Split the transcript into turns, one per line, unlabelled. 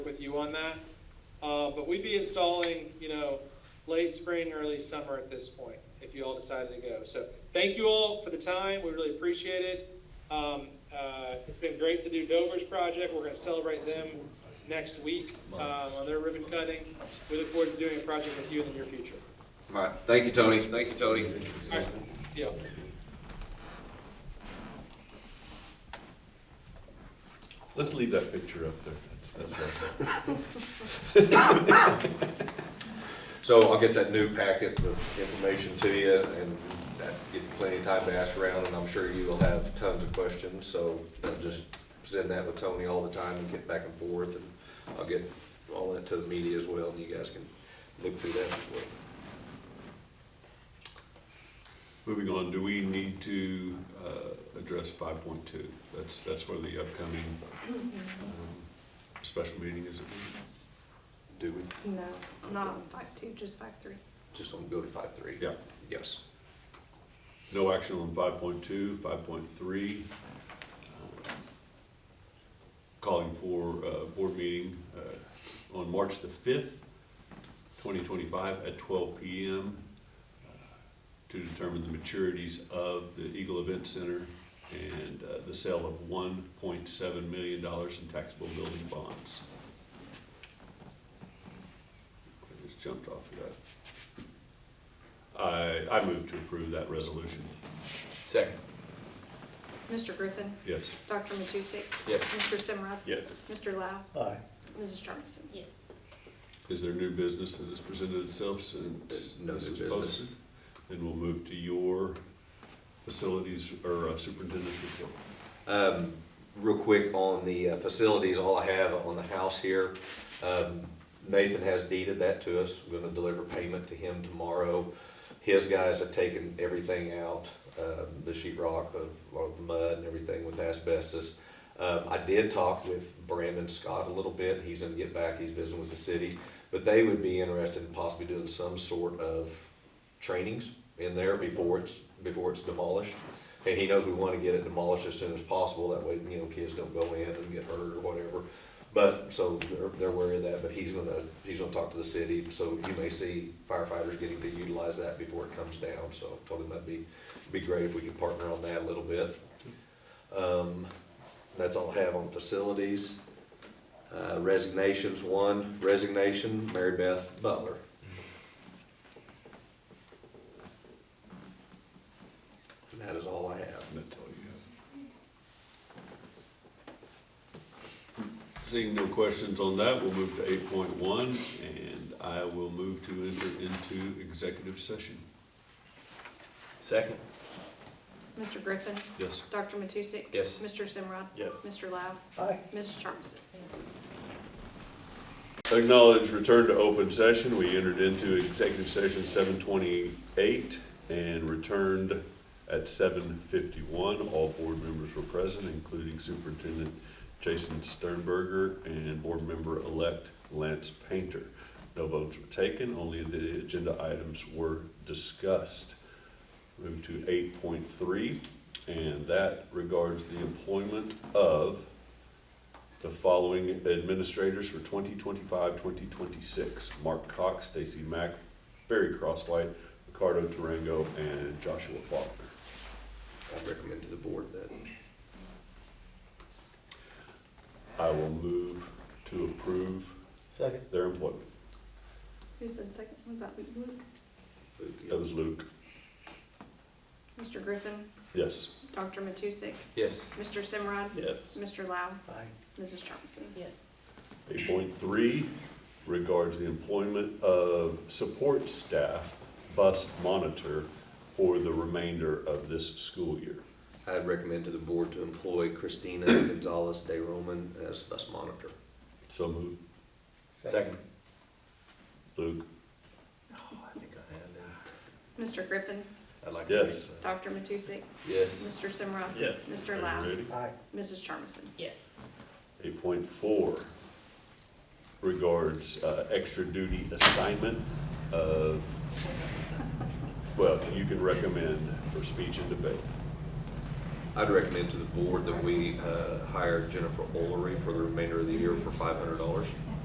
you on that. Uh, but we'd be installing, you know, late spring, early summer at this point, if you all decided to go. So thank you all for the time. We really appreciate it. Um, uh, it's been great to do Dover's project. We're gonna celebrate them next week, um, on their ribbon cutting. We look forward to doing a project with you in the near future.
All right, thank you, Tony, thank you, Tony.
All right, deal.
Let's leave that picture up there. That's- that's all.
So I'll get that new packet of information to you, and that give you plenty of time to ask around, and I'm sure you will have tons of questions, so I'll just send that with Tony all the time and get back and forth, and I'll get all that to the media as well, and you guys can look through that as well.
Moving on, do we need to uh, address five point two? That's, that's where the upcoming
Mm-hmm.
um, special meeting is.
Do we,
No, not on five two, just five three.
just don't go to five three?
Yeah,
Yes.
no action on five point two, five point three. Calling for a board meeting uh, on March the fifth, twenty twenty-five at twelve P M. uh, To determine the maturities of the Eagle Event Center and uh, the sale of one point seven million dollars in taxable building bonds. I just jumped off of that. I, I move to approve that resolution.
Second.
Mr. Griffin,
Yes.
Dr. Matusek,
Yes.
Mr. Simrod,
Yes.
Mr. Lau,
Aye.
Mrs. Charmison.
Yes.
Is there new business that has presented itself since
There's Uh, no
this
new
was
business.
posted? Then we'll move to your facilities or uh, superintendent's report.
Um, real quick on the uh, facilities, all I have on the house here, um, Nathan has deeded that to us. We're gonna deliver payment to him tomorrow. His guys have taken everything out, um, the sheet rock, uh, all the mud and everything with asbestos. Um, I did talk with Brandon Scott a little bit. He's gonna get back. He's visiting with the city. But they would be interested in possibly doing some sort of trainings in there before it's, before it's demolished. And he knows we wanna get it demolished as soon as possible, that way, you know, kids don't go in and get hurt or whatever. But, so they're, they're wary of that, but he's gonna, he's gonna talk to the city, so you may see firefighters getting to utilize that before it comes down, so I told him that'd be, be great if we could partner on that a little bit. Um, that's all I have on facilities. Uh, resignations, one resignation, Mary Beth Butler. And that is all I have.
That's all you have. Seeing no questions on that, we'll move to eight point one, and I will move to enter into executive session.
Second.
Mr. Griffin,
Yes.
Dr. Matusek.
Yes.
Mr. Simrod.
Yes.
Mr. Lau,
Aye.
Mrs. Charmison.
Acknowledge return to open session. We entered into executive session seven twenty-eight and returned at seven fifty-one. All board members were present, including Superintendent Jason Sternberger and Board Member-elect Lance Painter. No votes were taken, only the agenda items were discussed. Move to eight point three, and that regards the employment of the following administrators for 2025, 2026. Mark Cox, Stacy Mack, Barry Crosswhite, Ricardo Durango, and Joshua Faulkner.
I recommend to the board that.
I will move to approve
Second.
their employment.
Who said second? Was that Luke?
That was Luke.
Mr. Griffin,
Yes.
Dr. Matusek,
Yes.
Mr. Simrod,
Yes.
Mr. Lau,
Aye.
Mrs. Charmison.
Yes.
Eight point three regards the employment of support staff bus monitor for the remainder of this school year.
I recommend to the board to employ Christina Gonzalez De Roman as bus monitor.
So move,
Second.
Luke.
Oh, I think I had that.
Mr. Griffin,
I'd like to. read
Yes.
that.
Dr. Matusek,
Yes.
Mr. Simrod.
Yes.
Are
Mr.
you
Lau,
ready?
Aye.
Mrs. Charmison.
Yes.
Eight point four regards uh, extra duty assignment of, well, you can recommend for speech and debate.
I'd recommend to the board that we uh, hire Jennifer Olery for the remainder of the year for five hundred dollars.